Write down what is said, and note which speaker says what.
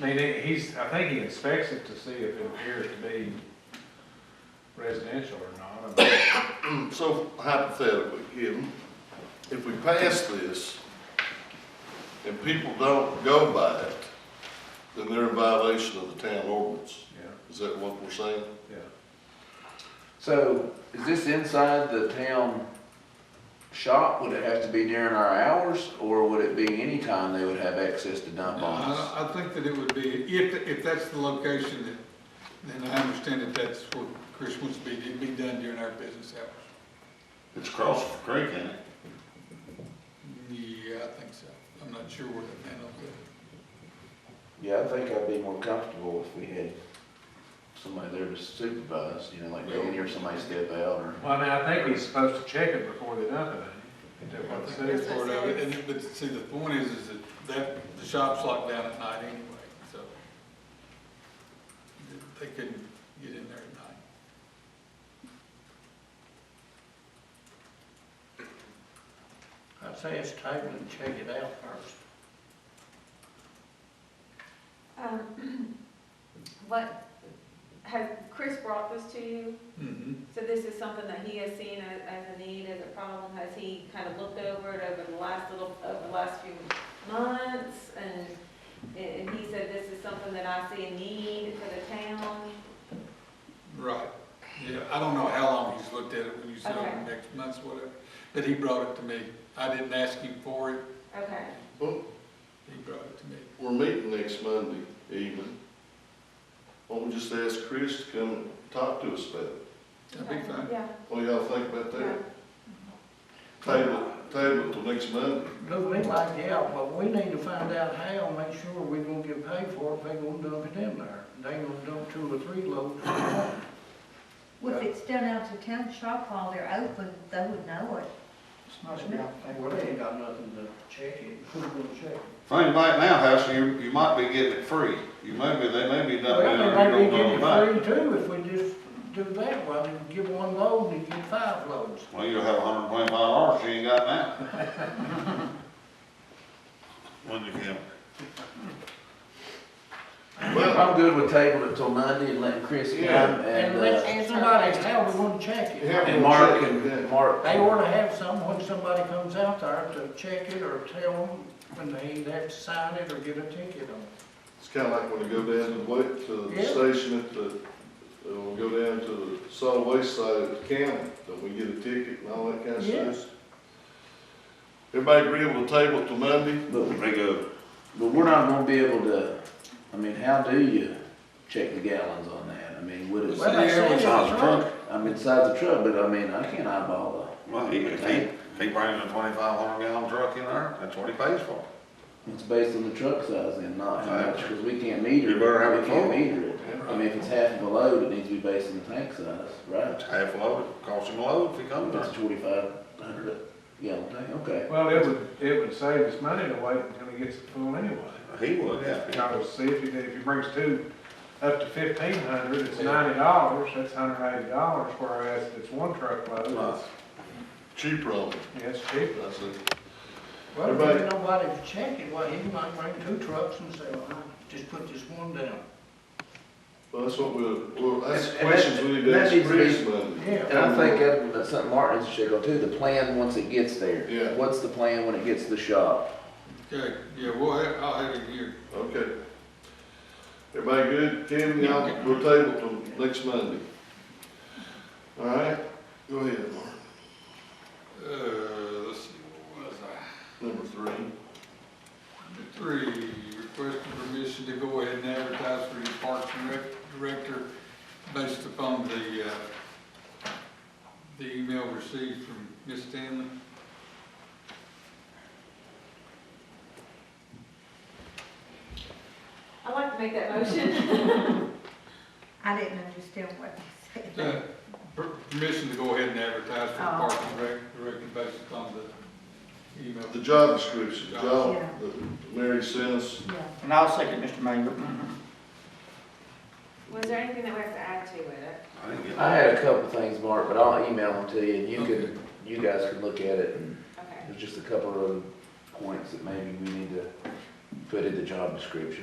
Speaker 1: I mean, they- he's, I think he inspects it to see if it appears to be residential or not. I mean,
Speaker 2: So hypothetically, Kim, if we pass this and people don't go by it, then they're in violation of the town ordinance.
Speaker 1: Yeah,
Speaker 2: Is that what we're saying?
Speaker 1: yeah.
Speaker 3: So is this inside the town shop? Would it have to be during our hours or would it be any time they would have access to
Speaker 4: Uh,
Speaker 3: dump on us?
Speaker 4: I, I think that it would be, if, if that's the location, that- then I understand that that's what Chris wants to be, it'd be done during our business hours.
Speaker 5: It's across the creek, ain't it?
Speaker 4: Yeah, I think so. I'm not sure where that man will
Speaker 3: Yeah, I think I'd be more comfortable if we had somebody there to supervise, you know, like go in here, somebody step out or.
Speaker 1: Well, I mean, I think he's supposed to check it before they dump it, ain't he? Is that what it
Speaker 4: go.
Speaker 1: says?
Speaker 4: That's part of it. And, but see, the point is, is that, that, the shop's locked down at night anyway, so they couldn't get in there at night.
Speaker 6: I'd say it's table and check it out first.
Speaker 7: Um, What, has, Chris brought this to you?
Speaker 4: Mm-hmm.
Speaker 7: So this is something that he has seen as, as a need, as a problem? Has he kind of looked over it over the last little, over the last few months? And, and he said, this is something that I see a need for the town?
Speaker 4: Right, yeah, I don't know how long he's looked at it, when you said
Speaker 7: Okay.
Speaker 4: over next month's whatever, but he brought it to me. I didn't ask him for it,
Speaker 7: Okay,
Speaker 2: Well,
Speaker 4: he brought it to me.
Speaker 2: we're meeting next Monday evening. Why don't we just ask Chris to come talk to us about it?
Speaker 4: That'd be fine.
Speaker 7: yeah.
Speaker 2: What do y'all think about
Speaker 7: yeah.
Speaker 2: that? Table, table it till next Monday.
Speaker 6: Look, we like the out, but we need to find out how, make sure we are gonna get paid for it, if they gonna dump it in there. They gonna dump two or three loads.
Speaker 8: Well, if it's done out of town shop while they're open, they would know it.
Speaker 6: It's not enough, they ain't got nothing to check it, who's gonna check it?
Speaker 5: Think about it now, House, you, you might be getting it free. You may be, they may be dumping it
Speaker 6: Well,
Speaker 5: there,
Speaker 6: they
Speaker 5: you
Speaker 6: may get
Speaker 5: don't know about.
Speaker 6: it free too, if we just do that, well, you give one load and you get five loads.
Speaker 5: Well, you'll have hundred and twenty-five dollars you ain't got now. When you can.
Speaker 2: Well,
Speaker 3: I'm good with table it till Monday and letting Chris come
Speaker 2: Yeah.
Speaker 3: and,
Speaker 6: And
Speaker 3: uh,
Speaker 6: let's ask somebody how we gonna check it.
Speaker 2: have
Speaker 3: and
Speaker 2: them
Speaker 3: Mark
Speaker 2: check it
Speaker 3: and,
Speaker 2: then.
Speaker 3: Mark.
Speaker 6: They ought to have some when somebody comes out there to check it or tell them when they have to sign it or get a ticket on it.
Speaker 2: It's kind of like when you go down to the, wa- to the
Speaker 6: Yeah.
Speaker 2: station at the, uh, when we go down to the solid waste side at the county, that we get a ticket and all that kind of
Speaker 6: Yes.
Speaker 2: stuff. Everybody agreeable to table till Monday?
Speaker 3: But But we're not gonna be able to, I mean, how do you check the gallons on that? I mean, would
Speaker 4: Well,
Speaker 3: it,
Speaker 6: Well, they say it's
Speaker 5: Sounds
Speaker 6: right.
Speaker 5: drunk.
Speaker 3: I'm inside the truck, but I mean, I can't eyeball
Speaker 5: Well, he, if he, if he brings a twenty-five hundred gallon truck in there, that's what he pays for.
Speaker 3: the, it's based on the truck size and not how much, cause we can't meter it.
Speaker 5: You better have it
Speaker 3: We can't
Speaker 5: full.
Speaker 3: meter it. I mean, if it's half of a load, it needs to be based on the tank size, right?
Speaker 5: It's half a load, it costs him a load if he comes there.
Speaker 3: That's twenty-five hundred gallon tank, okay.
Speaker 1: Well, it would, it would save us money to wait until he gets it full anyway.
Speaker 5: He would, yeah.
Speaker 1: Because see, if he, if he brings two, up to fifteen hundred, it's ninety dollars, that's hundred eighty dollars, whereas if it's one truckload,
Speaker 5: Well,
Speaker 2: Cheaper on it,
Speaker 1: it's, it's cheaper.
Speaker 2: I said.
Speaker 6: Well, if
Speaker 2: Everybody-
Speaker 6: there's nobody to check it, well, he might bring two trucks and say, well, I just put this one down.
Speaker 2: Well, that's what we'll, well, that's
Speaker 3: And- and
Speaker 2: questions
Speaker 3: that-
Speaker 2: we need to
Speaker 3: that
Speaker 2: ask
Speaker 3: needs to be-
Speaker 2: Chris Monday.
Speaker 3: And
Speaker 6: Yeah,
Speaker 3: I think that- that's something Martin's should go too, the plan once it gets there.
Speaker 2: Yeah.
Speaker 3: What's the plan when it gets to the shop?
Speaker 4: Okay, yeah, well, I- I'll have it here.
Speaker 2: Okay. Everybody good? Kim, y'all, we'll table till next Monday. All right, go ahead, Mark.
Speaker 4: Uh, let's see, what was I?
Speaker 2: Number three.
Speaker 4: Number Three, request for permission to go ahead and advertise for your parks and rec director based upon the, uh, the email received from Ms. Stanley.
Speaker 7: I'd like to make that motion.
Speaker 8: I didn't understand what you said.
Speaker 4: Uh, per- Permission to go ahead and advertise for the
Speaker 8: Oh.
Speaker 4: park and rec director based upon the email.
Speaker 2: The job description, the job
Speaker 8: Yeah.
Speaker 2: that Mary sent us.
Speaker 8: Yeah.
Speaker 6: And I'll second Mr. Mayor. Mm-hmm.
Speaker 7: Was there anything that we have to add to it?
Speaker 5: I didn't get
Speaker 3: I
Speaker 5: that.
Speaker 3: had a couple things, Mark, but I'll email them to you and you can, you guys can look at it and
Speaker 7: Okay.
Speaker 3: there's just a couple of points that maybe we need to put in the job description.